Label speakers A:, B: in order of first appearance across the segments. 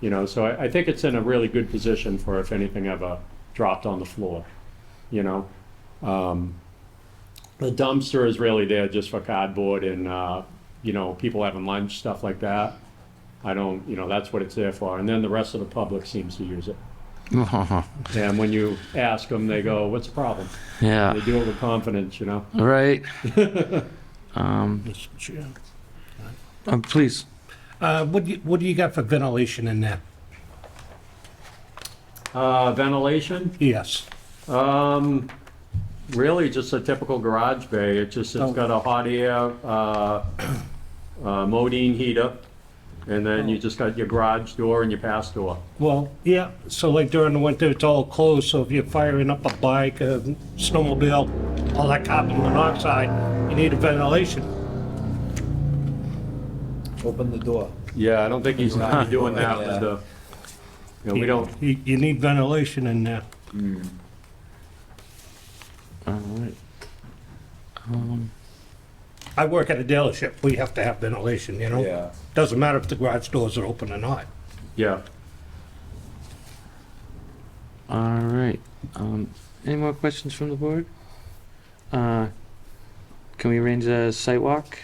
A: You know, so I, I think it's in a really good position for if anything ever dropped on the floor, you know? Um, the dumpster is really there just for cardboard and, uh, you know, people having lunch, stuff like that. I don't, you know, that's what it's there for. And then the rest of the public seems to use it. And when you ask them, they go, what's the problem? They
B: yeah,
A: do it with confidence, you know?
B: right. Um,
C: Mr. Chair.
B: um, please.
C: Uh, what do you, what do you got for ventilation in there?
A: Uh, ventilation,
C: Yes.
A: um, really just a typical garage bay. It just, it's got a hot air, uh, uh, modine heater. And then you just got your garage door and your pass door.
C: Well, yeah, so like during the winter, it's all closed, so if you're firing up a bike, a snowmobile, all that carbon monoxide, you need a ventilation.
D: Open the door.
A: Yeah, I don't think he's gonna be doing that with the, you know, we don't,
C: You, you need ventilation in there.
B: All right.
C: I work at a dealership, we have to have ventilation, you know?
D: Yeah.
C: Doesn't matter if the garage doors are open or not.
A: yeah.
B: All right. Um, any more questions from the board? Uh, can we arrange a site walk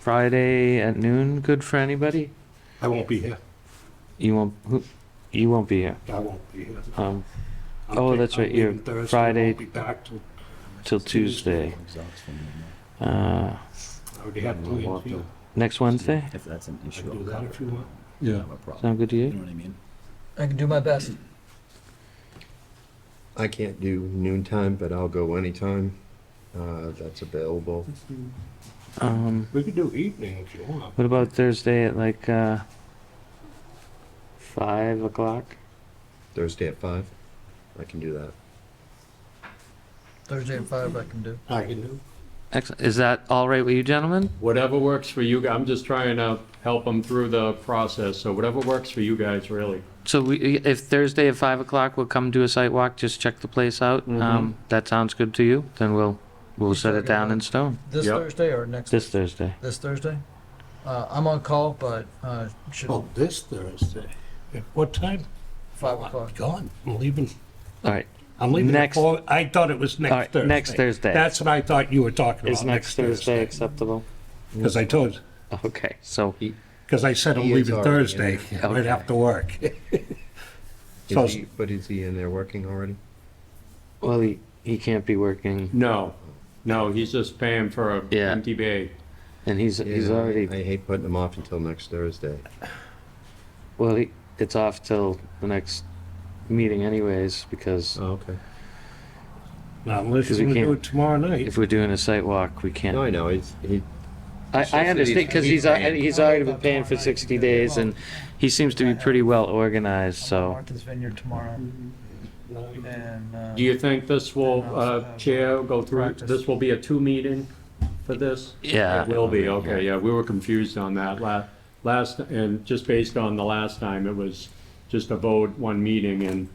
B: Friday at noon? Good for anybody?
C: I won't be here,
B: You won't. Who, you won't be here.
C: I won't be here.
B: Um,
C: I'm
B: Oh,
C: ta-
B: that's
C: I'm
B: right, you're
C: leaving Thursday. I
B: Friday-
C: won't be back till,
B: till Tuesday. Uh,
C: I already have plans, you
B: next Wednesday.
E: If that's an
C: I
E: issue.
C: can do that if you want.
A: Yeah.
E: a problem.
B: Sound good to
E: You
B: you?
E: know what I mean?
D: I can do my best.
F: I can't do noontime, but I'll go anytime uh, that's available.
B: Um,
C: We could do evening if you want.
B: what about Thursday at like uh, five o'clock?
F: Thursday at 5, I can do that.
D: Thursday at five, I can do.
C: I can do.
B: Excellent. Is that all right with you, gentlemen?
A: Whatever works for you, I'm just trying to help them through the process, so whatever works for you guys, really.
B: So we, if Thursday at five o'clock, we'll come do a site walk, just check the place out. Um, that sounds good to you, then we'll, we'll set it down in stone.
D: This
A: Yep.
D: Thursday or next?
B: This Thursday.
D: This Thursday? Uh, I'm on call, but, uh, should,
C: Oh, this Thursday. At what time?
D: five o'clock.
C: Gone. I'm leaving.
B: All right,
C: I'm leaving at
B: Next-
C: four. I thought it was
B: All
C: next
B: right,
C: Thursday.
B: next Thursday.
C: That's what I thought you were talking
B: is
C: about,
B: next Thursday acceptable?
C: Because I told,
B: Okay, so,
C: because I said I'm
F: He is
C: leaving
F: already
C: Thursday,
F: in.
C: right after work.
F: Is
C: So-
F: he, but is he in there working already?
B: well, he, he can't be working,
A: No, no, he's just paying for a
B: Yeah.
A: empty bay.
B: and he's, he's
F: Yeah,
B: already,
F: I hate putting him off until next Thursday.
B: well, he, it's off till the next meeting anyways, because
F: Oh, okay.
C: Now, unless
B: Because
C: you're
B: we
C: gonna do
B: can't-
C: it tomorrow night.
B: if we're doing a site walk, we
F: No,
B: can't.
F: I know. He's, he,
B: I, I understand, because he's, al-
F: He's-
B: he's already been paying for sixty days, and he seems to be pretty well organized,
D: I'm at
B: so.
D: Martha's Vineyard tomorrow, and, uh,
A: Do you think this will, uh, Chair, go through,
D: Practice.
A: this will be a two meeting for this?
B: Yeah.
A: It will be, okay, yeah, we were confused on that la- last, and just based on the last time, it was just a vote, one meeting, and,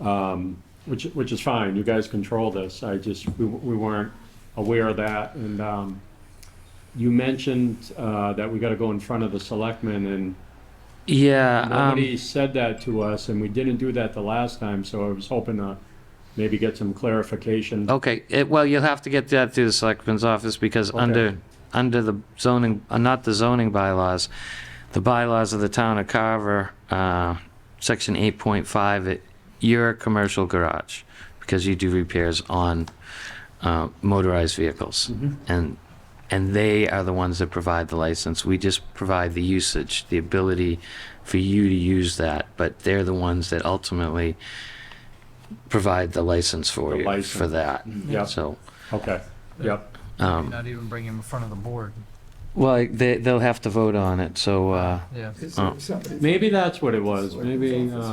A: um, which, which is fine, you guys control this, I just, we, we weren't aware of that, and, um, you mentioned, uh, that we gotta go in front of the selectmen, and
B: Yeah, um,
A: Nobody said that to us, and we didn't do that the last time, so I was hoping to maybe get some clarification.
B: okay, it, well, you'll have to get that through the selectman's office because under, under the zoning, uh, not the zoning bylaws, the bylaws of the town of Carver, uh, section eight point five, it, you're a commercial garage because you do repairs on, uh, motorized vehicles.
A: Mm-hmm.
B: And, and they are the ones that provide the license. We just provide the usage, the ability for you to use that, but they're the ones that ultimately provide the license for
A: The
B: you, for
A: license.
B: that.
A: Yep,
B: So,
A: okay, yep,
B: um,
D: not even bring him in front of the board,
B: well, they, they'll have to vote on it, so, uh,
D: yeah.
B: Oh.
A: maybe that's what it was, maybe, uh,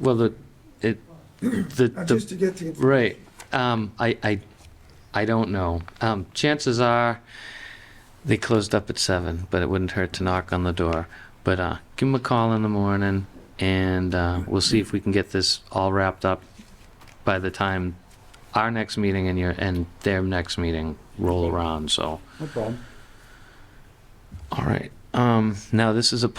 B: well, the, it, the, the,
G: Just to get the.
B: right, um, I, I, I don't know. Um, chances are, they closed up at seven, but it wouldn't hurt to knock on the door. But, uh, give them a call in the morning, and, uh, we'll see if we can get this all wrapped up by the time our next meeting and your, and their next meeting roll around, so.
A: no problem.
B: All right, um, now this is a